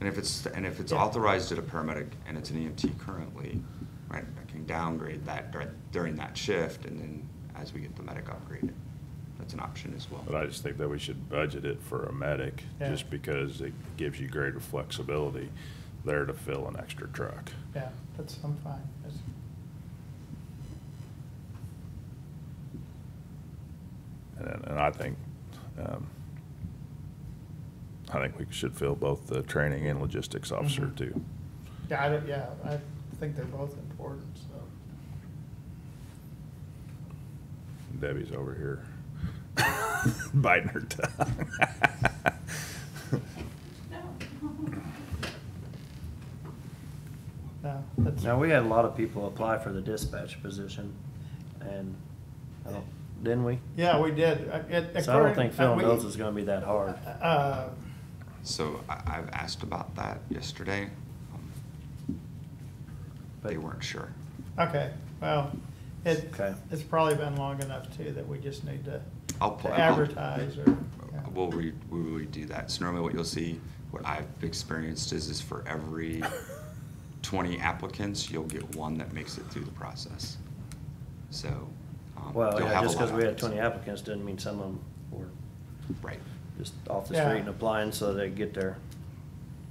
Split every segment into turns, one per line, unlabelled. And if it's, and if it's
Yeah.
authorized at a paramedic and it's an EMT currently, right, I can downgrade that dur- during that shift and then as we get the medic upgraded. That's an option as well.
But I just think that we should budget it for a medic,
Yeah.
just because it gives you greater flexibility there to fill an extra truck.
Yeah, that's, I'm fine. That's-
And, and I think, um, I think we should fill both the training and logistics officer
Mhm.
too.
Yeah, I, don't- yeah, I think they're both important, so.
Debbie's over here biting her tongue.
No, that's.
Now, we had a lot of people apply for the dispatch position, and, I don't- didn't we?
Yeah, we did. I- it-
So I don't
according- uh,
think filling
we-
those is gonna be that hard.
Uh,
So I, I've asked about that yesterday. Um, They
But-
weren't sure.
uh, Okay, well, it,
Okay.
it's probably been long enough too that we just need to
I'll
to
pull. I'll-
advertise or. yeah.
We'll re, we'll redo that. So normally what you'll see, what I've experienced is, is for every twenty applicants, you'll get one that makes it through the process. So. um,
Well,
you'll
yeah,
have a
just
lot
because
of
we had
applicants.
twenty applicants doesn't mean some of them were
Right.
just off the
Yeah.
street and applying so they get their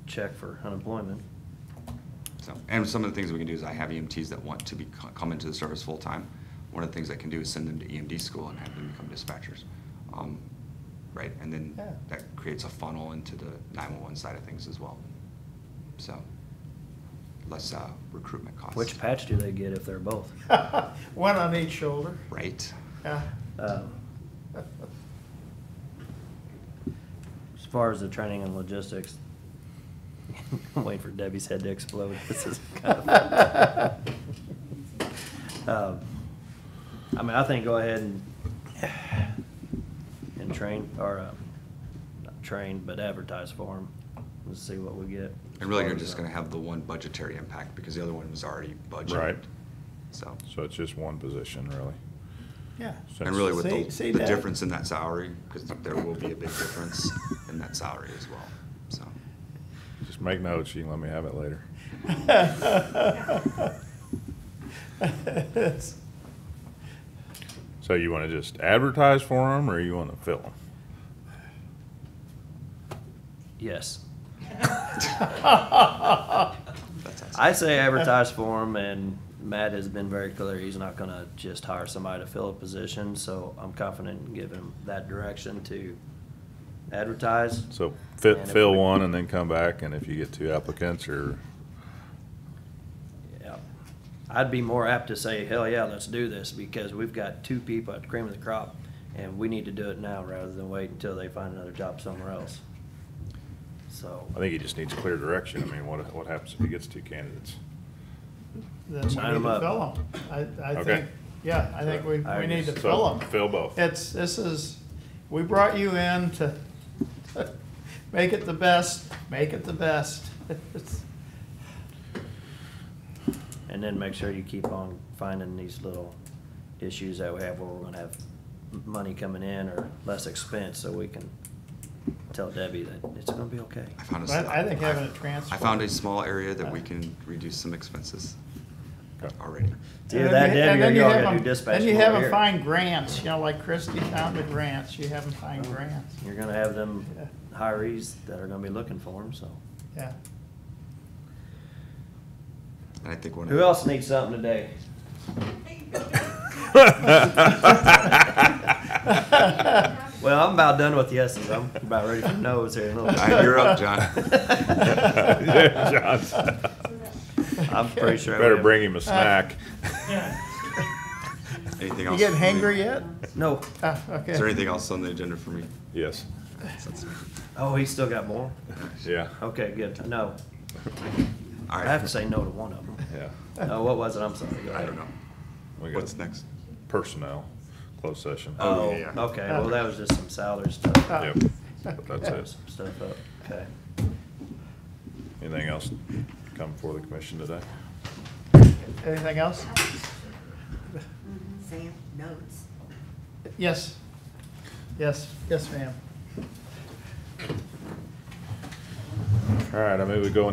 check for unemployment.
So, and some of the things we can do is I have EMTs that want to be, come into the service full-time. One of the things I can do is send them to EMD school and have them become dispatchers. Um, Right, and then
Yeah.
that creates a funnel into the nine-one-one side of things as well. So, less uh, recruitment costs.
Which patch do they get if they're both?
One on each shoulder,
Right,
yeah.
Um, As far as the training and logistics, I'm waiting for Debbie's head to explode. This is kind of. Um, I mean, I think go ahead and, and train, or, uh, not train, but advertise for them and see what we get.
and really you're just gonna have the one budgetary impact because the other one was already budgeted.
Right.
So,
So it's just one position, really.
Yeah.
and really with
See-
the,
see
the
that?
difference in that salary, because there will be a big difference in that salary as well, so.
Just make notes, you can let me have it later.
It's-
So you wanna just advertise for them, or you wanna fill them?
Yes.
that's us.
I say advertise for him, and Matt has been very clear, he's not gonna just hire somebody to fill a position, so I'm confident in giving him that direction to advertise.
So
And
fit,
if
fill
we-
one and then come back, and if you get two applicants or,
Yeah. I'd be more apt to say, hell yeah, let's do this, because we've got two people at the cream of the crop, and we need to do it now rather than wait until they find another job somewhere else. So,
I think he just needs clear direction. I mean, what, what happens if he gets two candidates?
Then we need
Sign 'em
to
up.
fill them. I, I
Okay.
think, yeah, I think we,
I
we need to
just-
fill them.
Fill both.
It's, this is, we brought you in to, to make it the best, make it the best. It's-
and then make sure you keep on finding these little issues that we have where we're gonna have m- money coming in or less expense, so we can tell Debbie that it's gonna be okay.
I found a
But
sli-
I think having
I-
it transferred-
I found a small area that we can reduce some expenses
Okay.
already.
It's Either
and then
that,
you- and
Debbie, or
then you
y'all
have
gotta do
'em-
dispatch
Then you
from
have
over
them
here.
find grants, you know, like Christie found the grants, you have them find
Oh.
grants,
You're gonna have them
Yeah.
hirees that are gonna be looking for them, so.
yeah.
And I think one of
Who
the-
else needs something today? Well, I'm about done with yeses. I'm about ready for nos here in a little
All right,
bit.
you're up, John.
Yeah, John.
I'm pretty sure. we
Better
have-
bring him a snack.
Anything
You
else?
getting
for me?
hangry yet?
No.
Ah, okay.
Is there anything else on the agenda for me?
Yes,
That's-
Oh, he's still got more?
yeah,
Okay, good. No.
All
I
right.
have to say no to one of them.
yeah.
Oh, what was it? I'm sorry. Go
I don't
ahead.
know.
We got
What's next?
Personnel, closed session.
Oh,
Oh,
yeah, yeah.
okay. Well, that was just some salary stuff.
Ah.
Yep, that's it.
Some Stuff up. Okay.
Anything else come before the commission today?
Anything else?
Sam, notes.
Yes. Yes, yes, ma'am.
All All right, I move we go